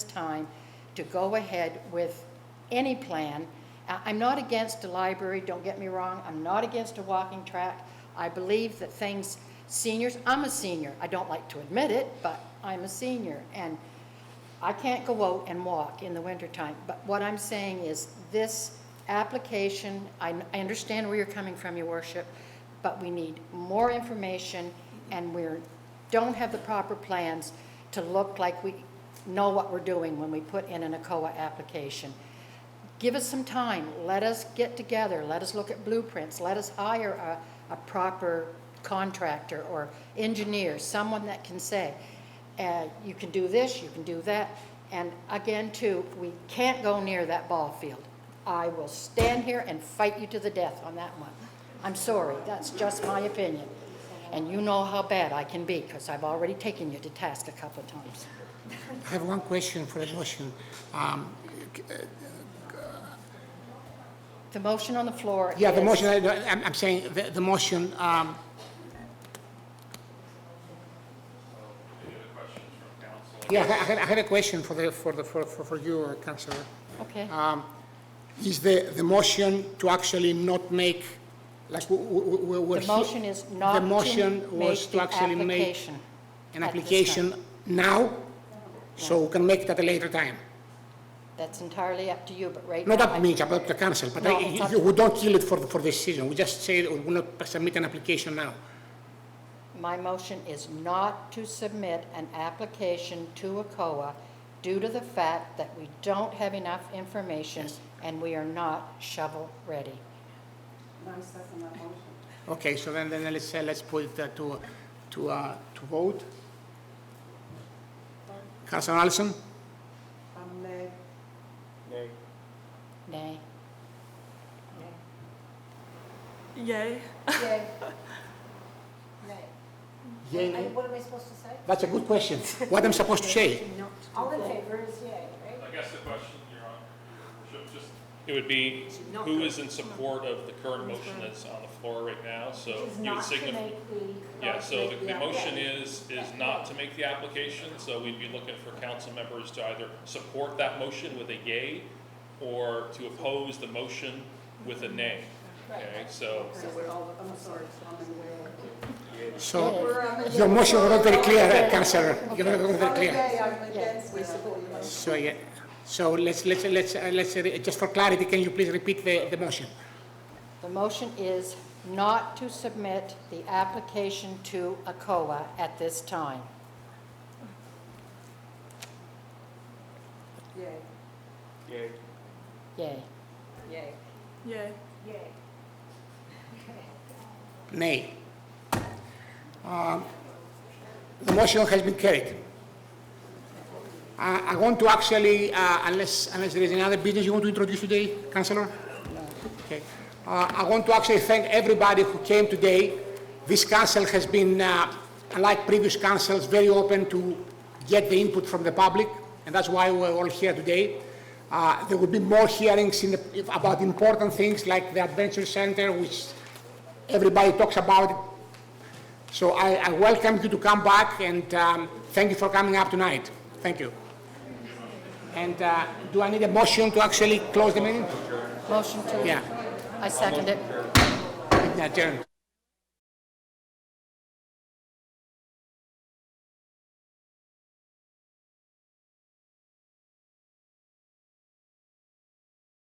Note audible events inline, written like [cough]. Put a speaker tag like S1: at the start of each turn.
S1: time to go ahead with any plan. I- I'm not against a library, don't get me wrong, I'm not against a walking track. I believe that things, seniors, I'm a senior, I don't like to admit it, but I'm a senior, and I can't go out and walk in the wintertime, but what I'm saying is, this application, I, I understand where you're coming from, your worship, but we need more information, and we're, don't have the proper plans to look like we know what we're doing when we put in an ACOA application. Give us some time, let us get together, let us look at blueprints, let us hire a, a proper contractor or engineer, someone that can say, uh, you can do this, you can do that. And again, too, we can't go near that ball field. I will stand here and fight you to the death on that one. I'm sorry, that's just my opinion. And you know how bad I can be, because I've already taken you to task a couple of times.
S2: I have one question for the motion. Um,
S1: The motion on the floor
S2: Yeah, the
S1: is-
S2: motion, I- I'm I'm saying, the the motion, um, yeah, I- I had- I had a question for the, for the, for for for you, uh, Councillor.
S1: Okay,
S2: Is the, the motion to actually not make, like, we- we- we- we're...
S1: the
S2: here-
S1: motion is not
S2: The
S1: to
S2: motion was
S1: make
S2: to
S1: the
S2: actually make
S1: application.
S2: an
S1: at this time.
S2: application now, so we can make it at a later time.
S1: That's entirely up to you, but right now...
S2: Not up
S1: I-
S2: to me, it's up to council, but
S1: No,
S2: I-
S1: it's up
S2: you-
S1: to-
S2: we don't kill it for, for this season. We just say we will not submit an application now.
S1: My motion is not to submit an application to ACOA due to the fact that we don't have enough information and we are not shovel-ready.
S2: Okay, so then, then let's, uh, let's put it uh, to, to, uh, to vote. Councilor Allison?
S3: I'm nay.
S1: Nay.
S4: Yay.
S3: Yay.
S2: Yay,
S3: I-
S2: nay?
S3: What am I supposed to say?
S2: That's a good question. [laughs] What I'm supposed to say?
S3: All in favor is yay, right?
S5: I guess the question, Your Honor, Your Worship, just, it would be, who is in support of the current motion that's on the floor right now? So
S3: Which is
S5: you would
S3: not to
S5: signify,
S3: make the.
S5: yeah, so the, the
S3: Yeah.
S5: motion is, is not to make the application, so we'd be looking for council members to either support that motion with a yay or to oppose the motion with a nay. Okay, so,
S2: So your motion was not very clear, uh, Councilor. You're not not very clear.
S3: I'm against, we support the motion.
S2: So, yeah, so let's, let's, let's, uh, let's, uh, just for clarity, can you please repeat the, the motion?
S1: The motion is not to submit the application to ACOA at this time.
S3: Yay.
S1: Yay.
S3: Yay.
S4: Yay.
S3: Yay.
S2: Nay. Um, The motion has been carried. Uh, I I want to actually, uh, unless, unless there is another business you want to introduce today, Councillor? Okay. Uh, I want to actually thank everybody who came today. This council has been, uh, unlike previous councils, very open to get the input from the public, and that's why we're all here today. Uh, There will be more hearings in the- about important things like the Adventure Center, which everybody talks about it. So I, I welcome you to come back and um, thank you for coming up tonight. Thank you. And uh, do I need a motion to actually close the meeting?
S1: Motion to...
S2: Yeah,
S1: I second it.
S2: adjourned.